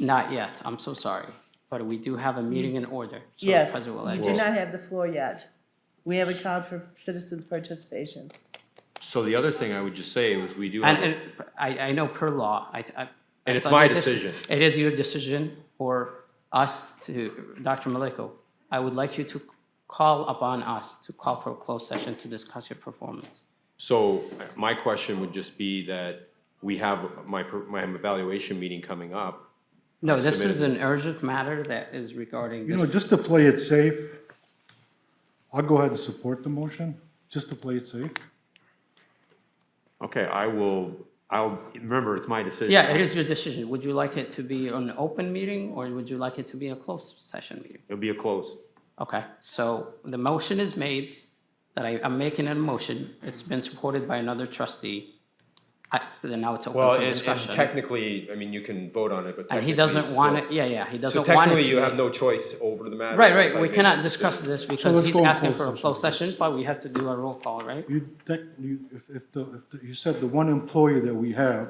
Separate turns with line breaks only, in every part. Not yet, I'm so sorry, but we do
Mm.
have a meeting in order. so
Yes,
President will
you
act-
do not have the floor yet. We have a call for citizens' participation.
So the other thing I would just say was we do have.
And,
a-
and I, I know per law, I, I.
And it's
I-
my
this-
decision.
It is your decision or us to, Dr. Maliko, I would like you to call upon us to call for a closed session to discuss your performance.
So uh, my question would just be that we have my, per- my evaluation meeting coming up.
No, this is an urgent matter that is regarding
You know,
this.
just to play it safe, I'll go ahead and support the motion, just to play it safe.
Okay, I will, I'll, remember, it's my decision.
Yeah, it is your decision. Would you like it to be an open meeting or would you like it to be a closed session meeting?
It'll be a close.
Okay, so the motion is made, that I, I'm making a motion. It's been supported by another trustee. I, then now it's
Well,
open for
and and
discussion.
technically, I mean, you can vote on it, but
And
technically.
he doesn't
it's
want
still-
it, yeah, yeah, he
So
doesn't want it
technically,
to
you have
be.
no choice over the matter.
Right, right,
unless I
we
make
cannot
a
discuss
decision.
this because
let's
he's
go on
asking
closed
for a
session
closed
first.
session, but we have to do a roll call, right?
You, tech- you- if, if the, if the- you said the one employer that we have,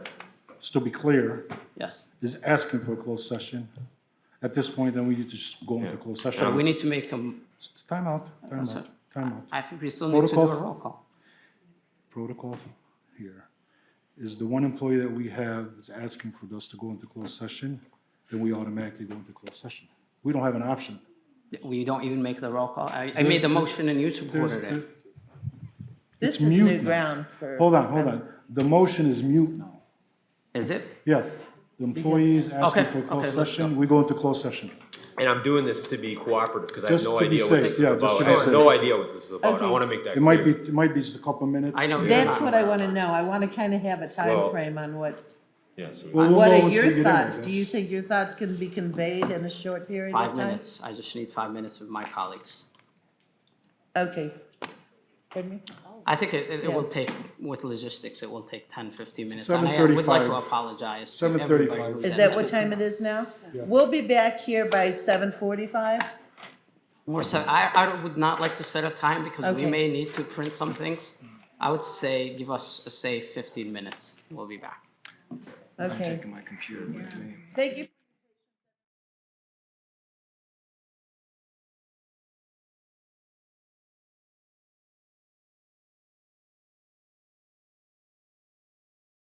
just to be clear,
Yes.
is asking for a closed session. At this point, then we need to just go into closed
We
session.
need to make a,
It's Time out, time out, time out.
I think we still need to do a
Protocol.
roll call.
protocol here is the one employee that we have is asking for us to go into closed session, then we automatically go into closed session. We don't have an option.
We don't even make the roll call. I, I made the motion and you supported it.
This
It's
is new
mute now.
ground for.
Hold on, hold on. The motion is mute now.
Is it?
Yeah, the employee is asking
Okay,
for a closed
okay, let's
session, we go into closed session.
And I'm doing this to be cooperative, because I have
Just
no
to be
idea what
safe,
this is
yeah, just
about.
to
I
be
have
safe.
no idea what this is about. I
Okay.
want to make that
It might be,
clear.
it might be just a couple minutes.
I know.
Yeah.
That's what I want to know. I want to kind of have a time
Well-
frame on what,
Yeah, so-
Well, we'll
what
know
are
once we get
your
in, I
thoughts? Do you
guess.
think your thoughts can be conveyed in a short period of time?
Five minutes. I just need five minutes of my colleagues.
Okay. Pardon me?
I think it, it it will
Yeah.
take, with logistics, it will take 10, 15 minutes. And I would like to
7:35.
apologize to
7:35.
everybody who's
Is
in
that
this
what
group.
time it is now? We'll be back here by seven forty-five.
We're, set- I, I would not like to set a time because we
Okay.
may need to print some things. I would say, give us, say 15 minutes. We'll be back.
Okay.
my computer with me.
Thank you.